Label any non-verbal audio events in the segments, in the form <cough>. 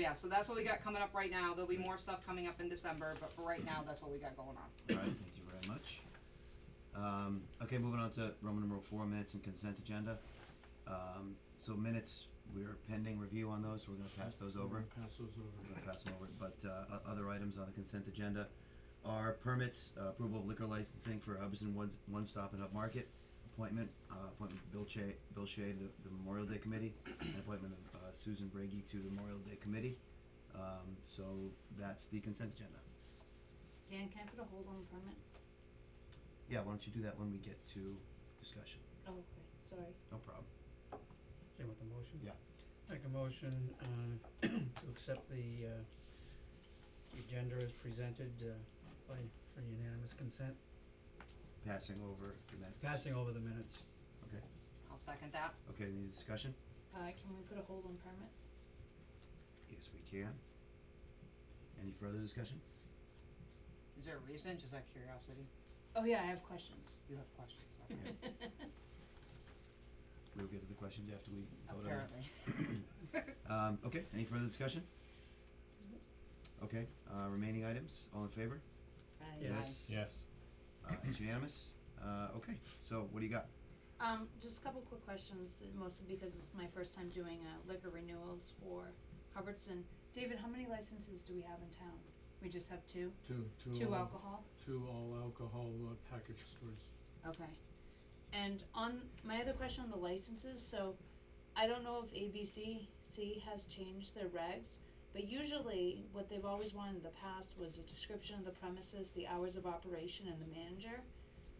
Yeah, so that's what we got coming up right now, there'll be more stuff coming up in December, but for right now, that's what we got going on. Alright, thank you very much. Um, okay, moving on to Roman numeral four, minutes and consent agenda. Um, so minutes, we're pending review on those, so we're gonna pass those over. Pass those over. We're gonna pass them over, but, uh, o- other items on the consent agenda are permits, uh, approval of liquor licensing for Hubbardson Woods One Stop and Up Market, appointment, uh, appointment of Bill Che, Bill Shea to the- the Memorial Day Committee, and appointment of, uh, Susan Brady to the Memorial Day Committee. Um, so that's the consent agenda. Dan, can I put a hold on permits? Yeah, why don't you do that when we get to discussion? Oh, okay, sorry. No problem. Same with the motion? Yeah. Make a motion, uh, <clears throat> to accept the, uh, agenda as presented, uh, by, for unanimous consent, Passing over the minutes. passing over the minutes. Okay, I'll second that. okay, any discussion? Uh, can we put a hold on permits? Yes, we can. Any further discussion? Is there a reason, just out of curiosity? Oh, yeah, I have questions. You have questions, <laughs> Yeah. We'll get to the questions after we vote on it. apparently. <laughs> <coughs> Um, okay, any further discussion? Okay, uh, remaining items, all in favor? <laughs> Yes. Yes. Uh, it's unanimous? Uh, okay, so what do you got? Um, just a couple quick questions, mostly because it's my first time doing, uh, liquor renewals for Hubbardson. David, how many licenses do we have in town? We just have two? Two, two. Two all- alcohol? Two all alcohol uh, package stores. Okay. And on, my other question on the licenses, so I don't know if ABCC has changed their regs, but usually what they've always wanted in the past was a description of the premises, the hours of operation and the manager.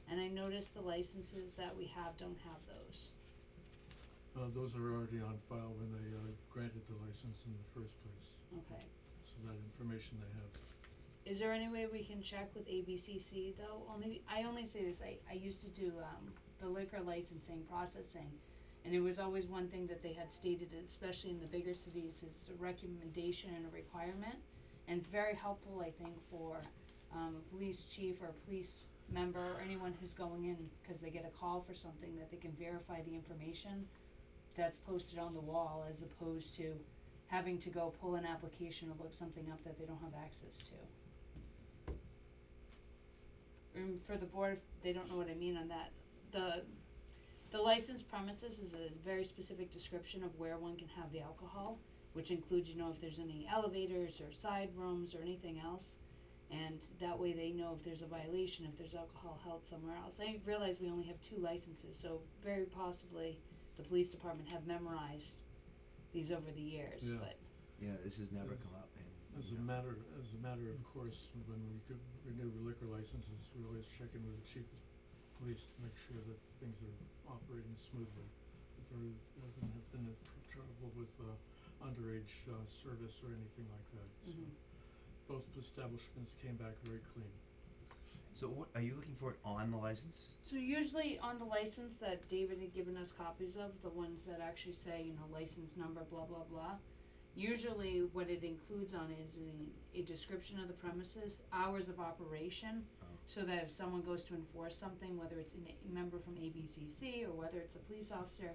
And I noticed the licenses that we have don't have those. Uh, those are already on file when they uh, granted the license in the first place, Okay. so that information they have. Is there any way we can check with ABCC though? Only, I only say this, I, I used to do, um, the liquor licensing processing. And it was always one thing that they had stated, especially in the bigger cities, is a recommendation and a requirement. And it's very helpful, I think, for, um, a police chief or a police member or anyone who's going in, cause they get a call for something that they can verify the information that's posted on the wall as opposed to having to go pull an application or look something up that they don't have access to. Um, for the board, if they don't know what I mean on that, the, the licensed premises is a very specific description of where one can have the alcohol, which includes, you know, if there's any elevators or side rooms or anything else. And that way they know if there's a violation, if there's alcohol held somewhere else. I realize we only have two licenses, so very possibly the police department have memorized these over the years, Yeah. but, Yeah, this has never come up and, As a matter, as a matter of course, when we could renew liquor licenses, we always check in with the chief of police to make sure that things are operating smoothly. That there hasn't have been a tr- trouble with uh, underage uh, service or anything like that, so. mhm. both establishments came back very clean. so what, are you looking for it on the license? So usually on the license that David had given us copies of, the ones that actually say, you know, license number, blah, blah, blah. Usually what it includes on is a, a description of the premises, hours of operation. Oh. So that if someone goes to enforce something, whether it's an- a member from ABCC or whether it's a police officer,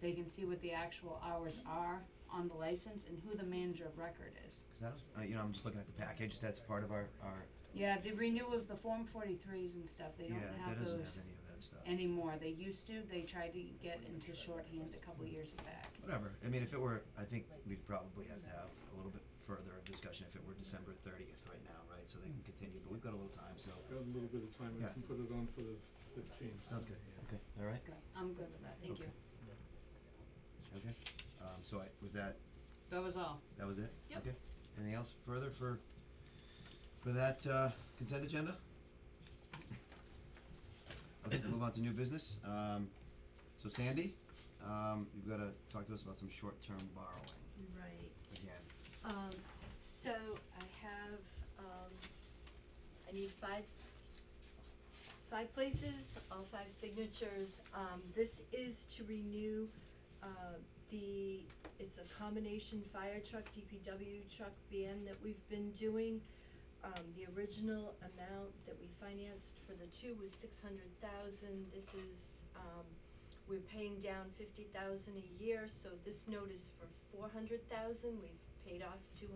they can see what the actual hours are on the license and who the manager of record is. Cause I don't, uh, you know, I'm just looking at the package, that's part of our, our, Yeah, the renewals, the Form forty-threes and stuff, they yeah, don't that have those. doesn't have any of that stuff. anymore. They used to. They tried to get into shorthand a couple years back. Whatever, I mean, if it were, I think we'd probably have to have a little bit further of discussion if it were December thirtieth right now, right, so they can continue, but we've got a little time, so. Got a little bit of time, we Yeah. can put it on for the fifteenth. Sounds good, okay, alright, Okay, I'm good with that. Thank you. Okay. okay, um, so I, was that, That was all. that was it? Yep. Okay, anything else further for, for that, uh, consent agenda? Okay, move on to new business, um, so Sandy, um, you've gotta talk to us about some short-term borrowing Right, again. um, so I have, um, I need five, five places, all five signatures. Um, this is to renew, uh, the, it's a combination fire truck, DPW truck ban that we've been doing. Um, the original amount that we financed for the two was six hundred thousand, this is, um, we're paying down fifty thousand a year, so this note is for four hundred thousand, we've paid off two